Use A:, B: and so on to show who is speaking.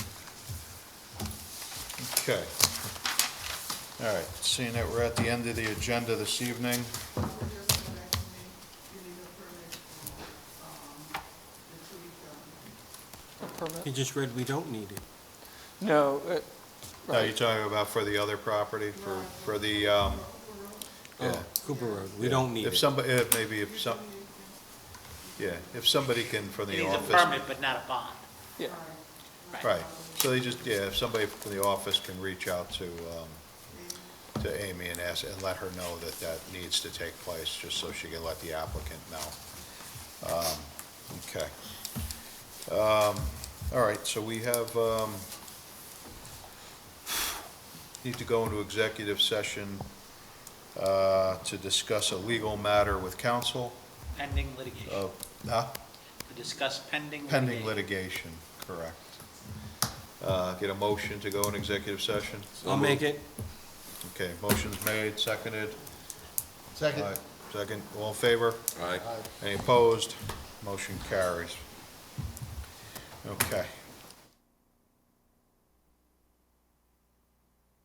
A: Okay. All right, seeing that we're at the end of the agenda this evening,
B: He just read we don't need it.
C: No, uh,
A: are you talking about for the other property, for, for the, um, yeah.
B: Oh, Cooper Road, we don't need
A: If
B: it.
A: somebody, if maybe if some, yeah, if somebody can, from
D: It
A: the
D: needs a
A: office.
D: permit, but not a bond.
C: yeah,
A: Right, so they just, yeah, if somebody from the office can reach out to, um, to Amy and ask, and let her know that that needs to take place, just so she can let the applicant know. Um, Okay. Um, all right, so we have, um, need to go into executive session, uh, to discuss a legal matter with counsel
D: Pending litigation,
A: of, huh?
D: to discuss pending.
A: Oh. Pending litigation, correct. Uh, Get a motion to go in executive session?
B: I'll make it.
A: Okay, motion's made, seconded. Second. Second, all in favor? Aye. Any opposed? Motion carries. Okay.